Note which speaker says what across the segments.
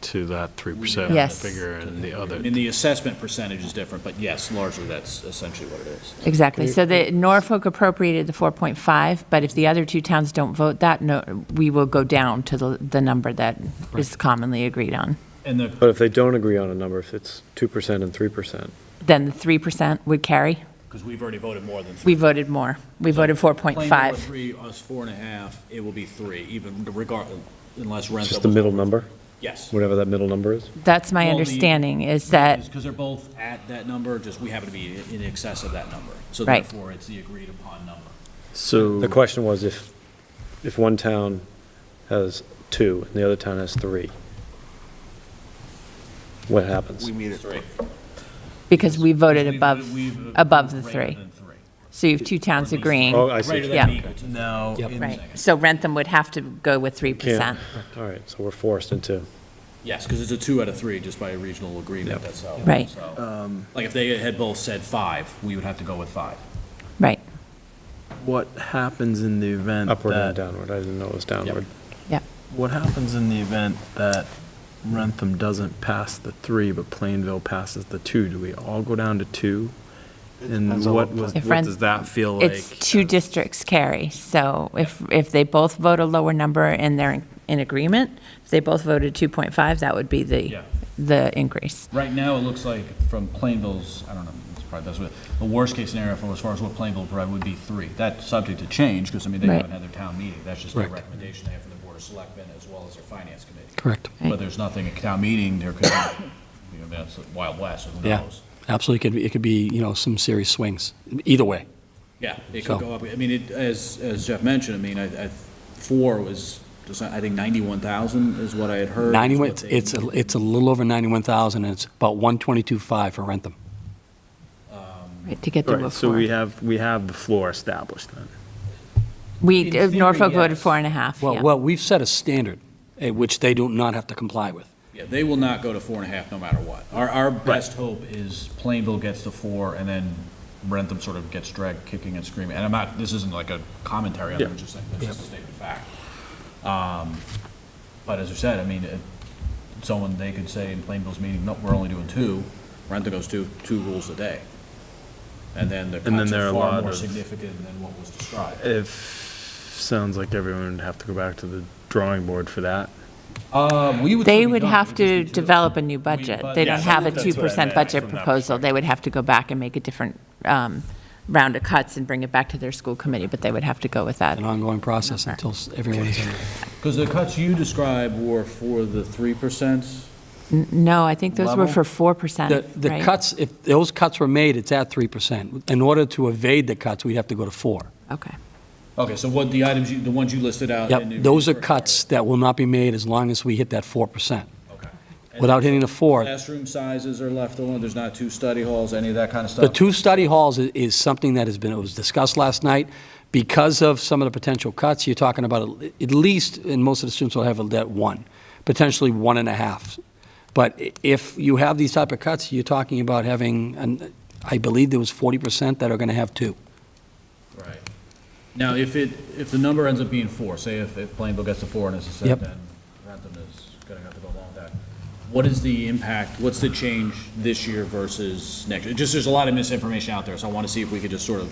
Speaker 1: to that 3%
Speaker 2: Yes.
Speaker 1: figure and the
Speaker 3: I
Speaker 1: other.
Speaker 3: mean, the assessment percentage is different, but yes, largely that's essentially what it is.
Speaker 2: Exactly. So the Norfolk appropriated the 4.5, but if the other two towns don't vote that, no, we will go down to the, the number that is commonly agreed on.
Speaker 3: And the,
Speaker 4: But if they don't agree on a number, if it's 2% and 3%,
Speaker 2: Then the 3% would carry.
Speaker 3: because we've already voted more than.
Speaker 2: We voted more. We voted
Speaker 3: Plain number
Speaker 2: 4.5.
Speaker 3: three, us four and a half, it will be three, even regard, unless
Speaker 4: it's
Speaker 3: Rentham.
Speaker 4: just the middle number,
Speaker 3: Yes.
Speaker 4: whatever that middle number is?
Speaker 2: That's my
Speaker 3: Well, the-
Speaker 2: understanding, is that,
Speaker 3: Because they're both at that number, just we happen to be in excess of that number. So
Speaker 2: Right.
Speaker 3: therefore, it's the agreed upon number.
Speaker 4: The
Speaker 1: So,
Speaker 4: question was if, if one town has two and the other town has three, what happens?
Speaker 3: meet it. Three.
Speaker 2: because we voted
Speaker 3: We've-
Speaker 2: above,
Speaker 3: we've-
Speaker 2: above the
Speaker 3: greater
Speaker 2: three.
Speaker 3: than three.
Speaker 2: So you have two towns
Speaker 3: Or at least-
Speaker 2: agreeing.
Speaker 4: Oh, I see.
Speaker 3: Greater than
Speaker 2: Yeah.
Speaker 3: or equal to. No. in the
Speaker 2: Right.
Speaker 3: second.
Speaker 2: So Rentham would have to go with
Speaker 4: Can't.
Speaker 2: 3%.
Speaker 4: All right, so we're forced into,
Speaker 3: Yes, because it's a two out of three, just by a regional agreement, that's how.
Speaker 2: Right.
Speaker 3: so- Like, if they had both said five, we would have to go with five.
Speaker 2: Right.
Speaker 5: What happens in the event
Speaker 4: upward and
Speaker 5: that,
Speaker 4: downward, I didn't know it was downward.
Speaker 2: Yep.
Speaker 5: what happens in the event that Rentham doesn't pass the three, but Plainville passes the two? Do we all go down to two? And what was,
Speaker 2: If
Speaker 5: what
Speaker 2: Ren-
Speaker 5: does that feel like?
Speaker 2: It's two districts carry, so if, if they both vote a lower number and they're in- in agreement, if they both voted 2.5, that would be
Speaker 3: Yeah.
Speaker 2: the, the increase.
Speaker 3: Right now, it looks like from Plainville's, I don't know, it's probably that's what, the worst-case scenario for, as far as what Plainville provided would be three. That's subject to change, because, I mean, they
Speaker 2: Right.
Speaker 3: haven't had their town meeting, that's just a
Speaker 1: Correct.
Speaker 3: recommendation they have from the Board of Selectmen as well as their Finance Committee.
Speaker 1: correct,
Speaker 2: Right.
Speaker 3: But there's nothing at town meeting, there could, be- you know, that's the Wild West, who
Speaker 1: Yeah.
Speaker 3: knows?
Speaker 1: absolutely, it could be, it could be, you know, some serious swings, either way.
Speaker 3: Yeah, it
Speaker 1: So-
Speaker 3: could go up. I mean, it, as, as Jeff mentioned, I mean, I, I, four was, just, I think ninety-one thousand is what I had heard. is
Speaker 1: 91,
Speaker 3: what
Speaker 1: it's,
Speaker 3: they-
Speaker 1: it's a it's a little over 91,000, and it's about 122.5 for Rentham.
Speaker 3: um,
Speaker 2: Right, To get the
Speaker 5: Right, so we
Speaker 2: before.
Speaker 5: have, we have the floor established then.
Speaker 2: We, uh,
Speaker 3: In theory,
Speaker 2: Norfolk voted
Speaker 3: yes.
Speaker 2: four and a half,
Speaker 1: Well,
Speaker 2: yeah.
Speaker 1: well, we've set a standard, eh, which they do not have to comply with.
Speaker 3: Yeah, they will not go to four and a half no matter what. Our, our best hope is Plainville gets to four and then Rentham sort of gets dragged kicking and screaming. And I'm not, this isn't like a commentary, on it, I'm just saying, this is a statement of fact. Um, But as I said, I mean, it- someone, they could say in Plainville's meeting, no, we're only doing two. Rentham goes two, two rules a day. And then the
Speaker 5: then
Speaker 3: cuts
Speaker 5: there are
Speaker 3: are
Speaker 5: a
Speaker 3: far
Speaker 5: lot
Speaker 3: more
Speaker 5: of-
Speaker 3: significant than what was described.
Speaker 5: If, sounds like everyone would have to go back to the drawing board for that.
Speaker 3: Um, we would.
Speaker 2: They
Speaker 3: still be
Speaker 2: would
Speaker 3: done.
Speaker 2: have
Speaker 3: We'd just
Speaker 2: to
Speaker 3: need
Speaker 2: develop a new budget. They don't
Speaker 5: Yeah,
Speaker 2: have a
Speaker 5: that's what I
Speaker 2: 2%
Speaker 5: meant
Speaker 2: budget
Speaker 5: from that
Speaker 2: proposal. They would have to go back and make a different um, round of cuts and bring it back to their school committee, but they would have to go with that.
Speaker 1: An ongoing process until s- everyone is in.
Speaker 3: Because the cuts you described were for the three percent.
Speaker 2: N- No, I think those were
Speaker 3: Level?
Speaker 2: for
Speaker 1: The
Speaker 2: 4%,
Speaker 1: the
Speaker 2: right?
Speaker 1: cuts, if those cuts were made, it's at 3%. In order to evade the cuts, we'd have to go to 4.
Speaker 2: Okay,
Speaker 3: Okay, so what, the items, you the ones you listed out? in the-
Speaker 1: Yep, those are cuts that will not be made as long as we hit that 4%.
Speaker 3: Okay.
Speaker 1: Without hitting the 4,
Speaker 3: Classroom sizes are left alone, there's not two study halls, any of that kind of
Speaker 1: the
Speaker 3: stuff?
Speaker 1: two study halls i- is something that has been, it was discussed last night. Because of some of the potential cuts, you're talking about at- at least, and most of the students will have that one, potentially one and a half. But i- if you have these type of cuts, you're talking about having, an- I believe there was 40% that are going to have two.
Speaker 3: Right. Now, if it, if the number ends up being four, say if, if Plainville gets to four and it's a set,
Speaker 1: Yep.
Speaker 3: then Rentham is gonna have to go along with that. What is the impact, what's the change this year versus next? year? Just, there's a lot of misinformation out there, so I wanna see if we could just sort of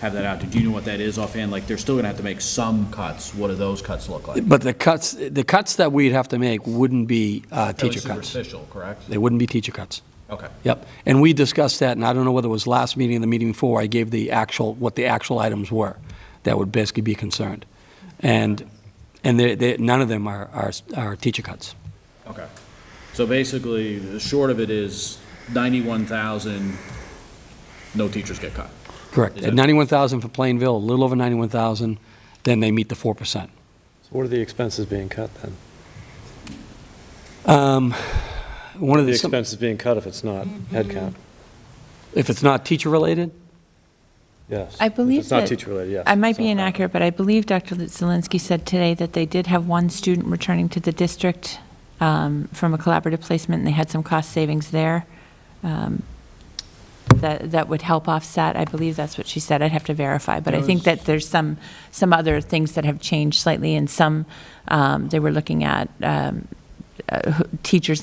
Speaker 3: have that out. there. Do you know what that is offhand? Like, they're still gonna have to make some cuts, what do those cuts look like?
Speaker 1: But the cuts, the cuts that we'd have to make wouldn't be uh,
Speaker 3: Fairly
Speaker 1: teacher cuts.
Speaker 3: Superficial, correct?
Speaker 1: They wouldn't be teacher cuts.
Speaker 3: Okay.
Speaker 1: Yep, and we discussed that, and I don't know whether it was last meeting or the meeting before, I gave the actual, what the actual items were that would basically be concerned. And, and they, they, none of them are, are, are teacher cuts.
Speaker 3: Okay. So basically, the short of it is ninety-one thousand, no teachers get cut.
Speaker 1: Correct.
Speaker 3: Is
Speaker 1: At
Speaker 3: that-
Speaker 1: 91,000 for Plainville, a little over 91,000, then they meet the 4%.
Speaker 4: So what are the expenses being cut then?
Speaker 1: One of
Speaker 4: The
Speaker 1: the, some-
Speaker 4: expenses being cut if it's not headcount,
Speaker 1: if it's not teacher-related,
Speaker 4: yes.
Speaker 2: I believe
Speaker 4: If it's not
Speaker 2: that-
Speaker 4: teacher-related, uh, yes.
Speaker 2: I might
Speaker 4: it's
Speaker 2: be
Speaker 4: not-
Speaker 2: inaccurate, but I believe Dr. Zelinski said today that they did have one student returning to the district um, from a collaborative placement, and they had some cost savings there um, that, that would help offset. I believe that's what she said. I'd have to verify, but I think that there's some, some other things that have changed slightly, and some, um, they were looking at um, uh, who- teachers